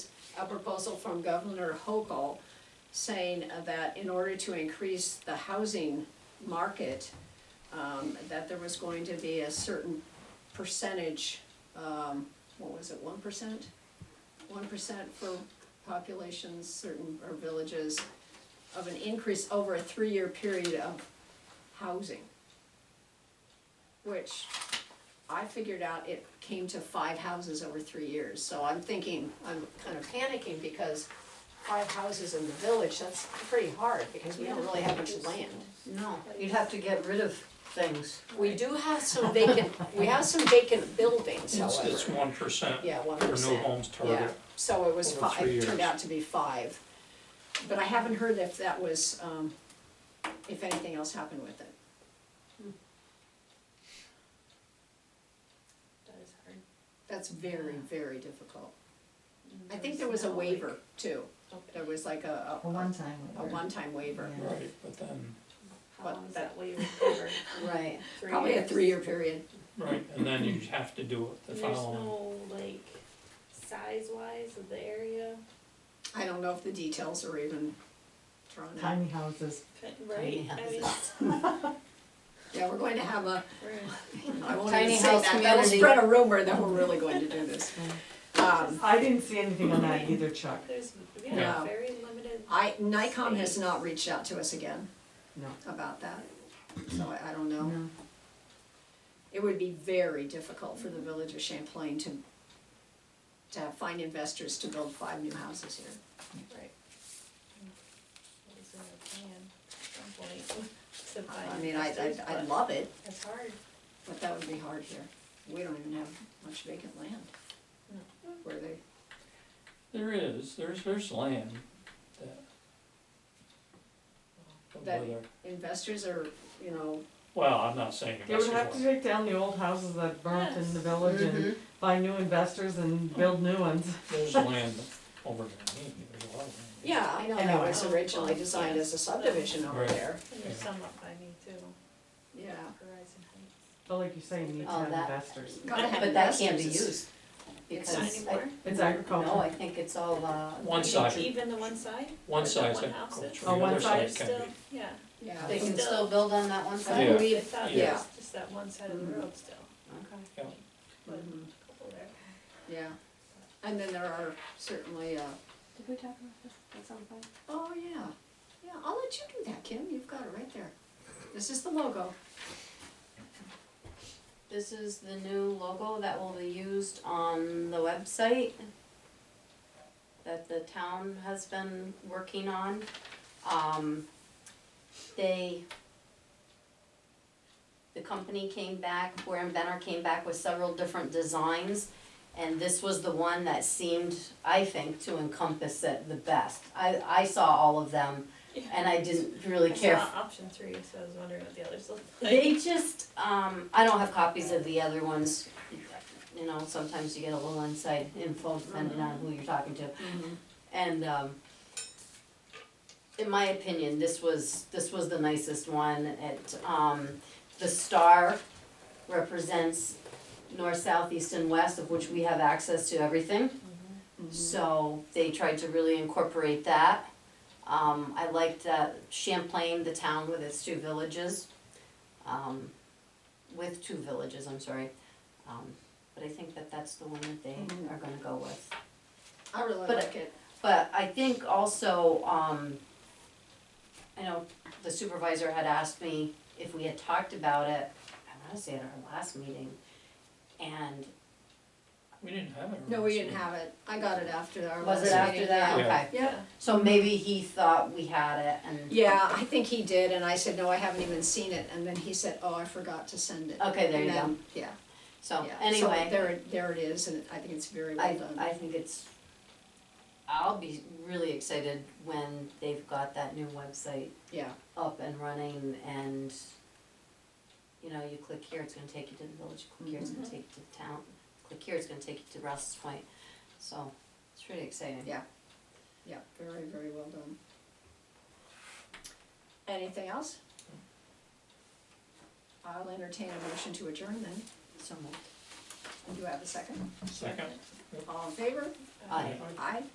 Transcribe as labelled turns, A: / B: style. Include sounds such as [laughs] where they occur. A: a proposal from Governor Hochul saying uh, that in order to increase the housing market, um, that there was going to be a certain percentage, um, what was it, one percent? One percent for populations, certain, or villages, of an increase over a three-year period of housing. Which I figured out it came to five houses over three years, so I'm thinking, I'm kind of panicking because five houses in the village, that's pretty hard, because we don't really have much land.
B: No, you'd have to get rid of things.
A: We do have some vacant, we have some vacant buildings,
C: It's,
A: however.
C: it's one percent
A: Yeah, one
C: for new
A: percent.
C: homes
A: Yeah,
C: target.
A: so it was
C: over
A: five,
C: three
A: it turned
C: years.
A: out to be five. But I haven't heard if that was, um, if anything else happened with it.
D: That is hard.
A: That's very, very difficult. I think there was a waiver too. There was like a, a,
E: A one-time
A: a
E: waiver.
A: one-time waiver.
E: Yeah.
C: Right, but then,
D: How long is that waiver cover?
A: [laughs]
B: Right.
D: Three
A: Probably a
D: years?
A: three-year period.
C: right, and then you have to do it the
D: And
C: following.
D: There's no like size wise of the area,
A: I don't know if the details are even drawn out.
E: Tiny houses.
D: But- [laughs] right? I mean,
A: [laughs] Yeah, we're going to have a,
D: we're in-
A: I won't
B: Tiny
A: even say
B: house
A: that, that'll
B: community.
A: spread a rumor that we're really going to do [laughs] this. Um,
E: I didn't see anything on that either, Chuck.
D: there's, we
A: Yeah.
D: have very limited.
A: I, Nikon has
D: Space.
A: not reached out to us again.
E: No.
A: About that, so I, I don't know.
B: Mm-hmm.
A: It would be very difficult for the village of Champlain to, to have- find investors to build five new houses here.
D: Right. What is in the plan at some point [laughs] to
A: I
D: find
A: mean, I,
D: investors,
A: I'd, I'd
D: but
A: love it,
D: It's hard.
A: but that would be hard here. We don't even have much vacant land. Where they,
C: There is, there's, there's land that. but
A: That-
C: whether-
A: investors are, you know,
C: Well, I'm not saying
E: They would
C: investors
E: have to
C: want,
E: take down the old houses that burnt in the village and
B: Mhm.
E: find new investors and build new ones.
C: there's land over there, maybe, there's a lot of land.
A: yeah, I know that
E: Anyway.
A: was originally designed as a subdivision over
C: Right.
A: there,
D: And there's
C: Yeah.
D: some up by me too,
A: yeah.
D: Horizon Heights.
E: But like you say, you need to
B: Oh,
E: have
B: that-
E: investors.
A: Gotta have
B: But that can't be
A: investors.
B: used,
A: It's-
D: Not
B: Because I-
D: anymore?
E: It's
B: no,
E: agricultural.
B: I think it's all, uh.
C: One
D: Even-
C: side.
D: Even the one side?
C: One
D: Or the
C: side's
D: one houses?
C: agriculture,
E: Oh,
C: the
E: one
C: other
E: side
C: side
D: There's
C: can
D: still,
C: be,
D: yeah.
A: Yeah.
B: They can still build on that one
A: I
B: side?
C: Yeah.
D: I
A: believe, Mm-hmm.
D: thought
C: Yeah.
D: there was just that one side of the road still,
B: Okay.
C: yeah,
D: but
A: Mhm.
D: a couple there.
A: yeah. And then there are certainly, uh,
F: Did we talk about this at some point?
A: Oh, yeah, yeah, I'll let you do that, Kim, you've got it right there. This is the logo.
B: This is the new logo that will be used on the website that the town has been working on. Um, they, the company came back, where inventor came back with several different designs. And this was the one that seemed, I think, to encompass it the best. I, I saw all of them and I didn't really
D: I
B: care
D: saw option three, so I was wondering what the others looked like.
B: they just, um, I don't have copies of the other ones. You know, sometimes you get a little inside info depending on who you're talking to.
A: Mm-hmm.
B: And, um, in my opinion, this was, this was the nicest one. It, um, the star represents north, south, east and west, of which we have access to everything. So they tried to really incorporate that. Um, I liked that Champlain, the town with its two villages, um, with two villages, I'm sorry. Um, but I think that that's the one that they
A: Mhm.
B: are gonna go with.
A: I really
B: But-
A: like it.
B: But I think also, um, I know the supervisor had asked me if we had talked about it, I wanna say at our last meeting. And
C: we didn't have it.
A: No, we
C: originally.
A: didn't have it, I got it after our last
B: was it
A: meeting.
B: after that?
C: Yeah.
B: Okay.
A: Yeah,
B: So maybe he thought we had it and.
A: yeah, I think he did, and I said, no, I haven't even seen it, and then he said, oh, I forgot to send it.
B: Okay, there
A: And
B: you go.
A: then- Yeah,
B: So
A: yeah. So
B: anyway,
A: there, it- there it is, and Oh, I think it's very well
B: I,
A: done.
B: I think it's, I'll be really excited when they've got that new website
A: Yeah,
B: up and running and, you know, you click here, it's gonna take you to the village, click here, it's gonna
D: Mhm.
B: take you to the town, click here, it's gonna take you to Rouse's Point. So it's really exciting.
A: Yeah. yeah, very, very well done. Anything else? I'll entertain a motion to adjourn then,
B: So much.
A: do you have a second?
C: Second.
A: All in favor?
B: Aye.
A: Aye.